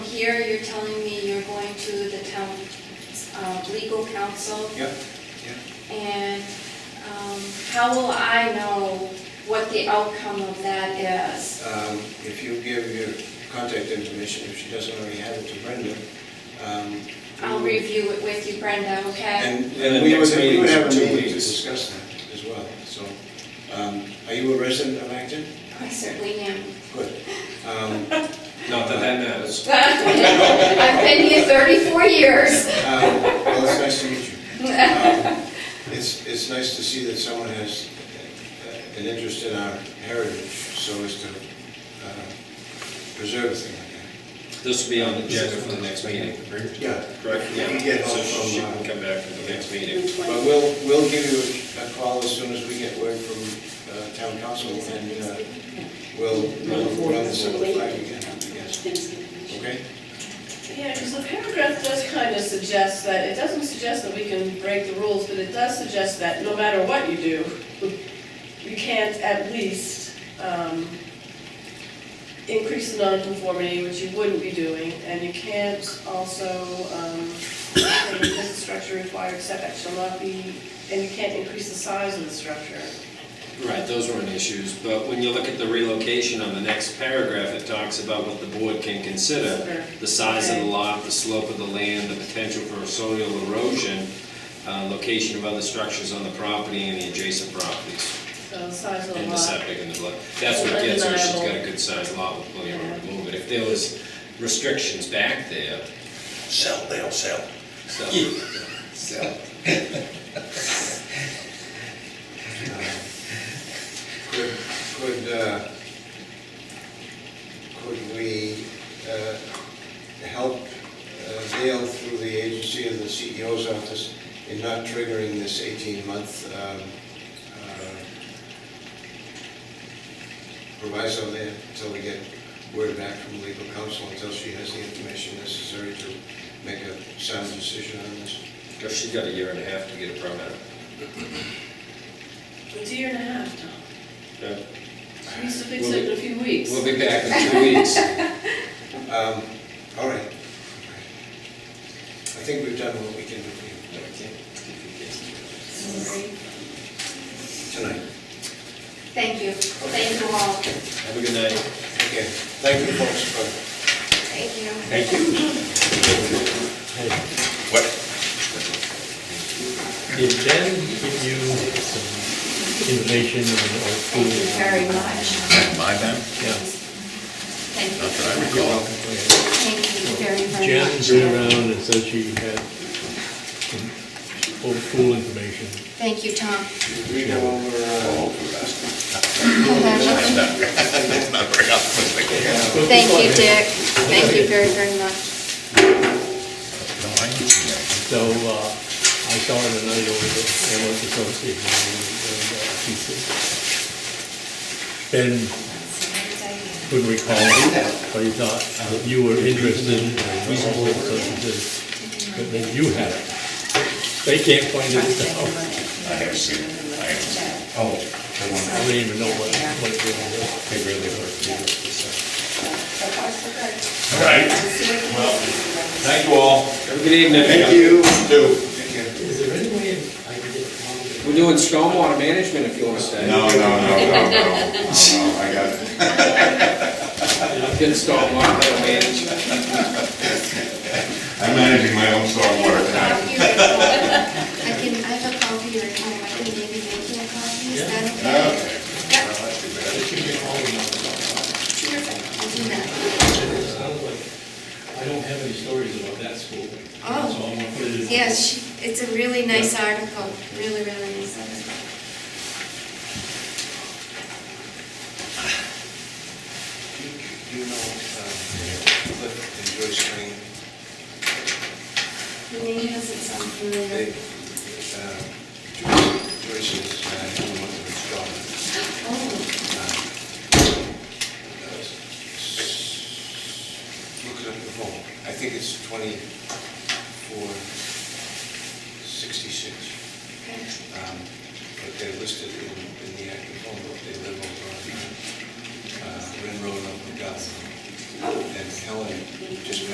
here, you're telling me you're going to the town uh, legal counsel, Yep. and um, how will I know what the outcome of that is? Um, If you give your contact information, if she doesn't already have it to Brenda. um, I'll we Mm. will- review it with you, Brenda, okay? And And the and we would next we meeting would is have a in two meeting to weeks. discuss that as well. So, um, are you a resident of Acton? I certainly am. Good. Um, Not that that matters. I've been here 34 years. Um, Well, it's nice to meet you. Um, It's, it's nice to see that someone has uh, an interest in our heritage, so as to uh, preserve a thing like that. This will be on the agenda for the next meeting, correct? Yeah. Correct, You can yeah. get So help from, she uh, can come back for the next meeting. But we'll, we'll give you a call as soon as we get word from uh, town council, and uh, we'll we'll run this up the flag again, I guess. Okay? Yeah, because the paragraph does kind of suggest that, it doesn't suggest that we can break the rules, but it does suggest that no matter what you do, you can't at least um, increase the nonconformity, which you wouldn't be doing, and you can't also, um, say this structure required setback shall not be, and you can't increase the size of the structure. Right, those weren't issues, but when you look at the relocation on the next paragraph, it talks about what the board can consider. The size of the lot, the slope of the land, the potential for soil erosion, uh, location of other structures on the property and the adjacent properties, So the size of the lot. and the septic and the blood. That's what gets her, she's got a good sized lot with plenty of room to move it. If there was restrictions back there, Sell, they'll sell. so. So, Could, could, uh, could we uh, help uh, Dale through the agency of the CEO's office in not triggering this 18-month um, uh, proviso there until we get word back from legal counsel, until she has the information necessary to make a sound decision on this? Cause she's got a year and a half to get a permit. It's a year and a half, Tom. Yeah. We used to fix it in a few weeks. We'll be back in two weeks. Um, All right. I think we've done what we can do for you. tonight. Thank you. Thank you all. Have a good night. Okay, thank you folks for, Thank you. Thank you. What? Did Ben give you some information on old school? Thank you very much. My time? Yeah. Thank Not you. that I recall. Thank you very, very Jan much. been around and said she had some old school information. Thank you, Tom. we go over, uh, Oh, that's Thank not, that's not very optimistic. you, Dick. Thank you very, very much. No, I didn't see So, uh, I saw her tonight over at the Ambulance Association, and uh, she said, Ben couldn't recall what he thought, that you were interested in reasonable substances, but then you had it. They can't find it out. that. I have seen, it. I have seen. it. I don't even know what, what it was. They really were. All right. Well, thank you all. Have a good evening. Thank you. Too. thank you. Is there any way I can get Tom to We're doing stormwater management if you want to stay. No, no, no, no, no, no, no, I got it. Good stormwater management. I'm managing my own stormwater tonight. I can, I have a copy here at home. I can maybe make you a copy. Is that okay? Okay. Yeah. Well, that's too bad. Terrific. I'll do that. It sounds like, I don't have any stories about that school. Oh. So I'm gonna put it in. Yes, she- it's a really nice article, really, really nice article. Do you know, um, Cliff and Joyce Spring, The name doesn't sound familiar. they, uh, Joyce Joyce is, uh, doing one of his jobs. Oh, Uh, Look it up at home, I think it's twenty-four sixty-six. okay. Um, But they're listed in in the active home book, they live over on uh, Rin Road up in Gotham. And Helen just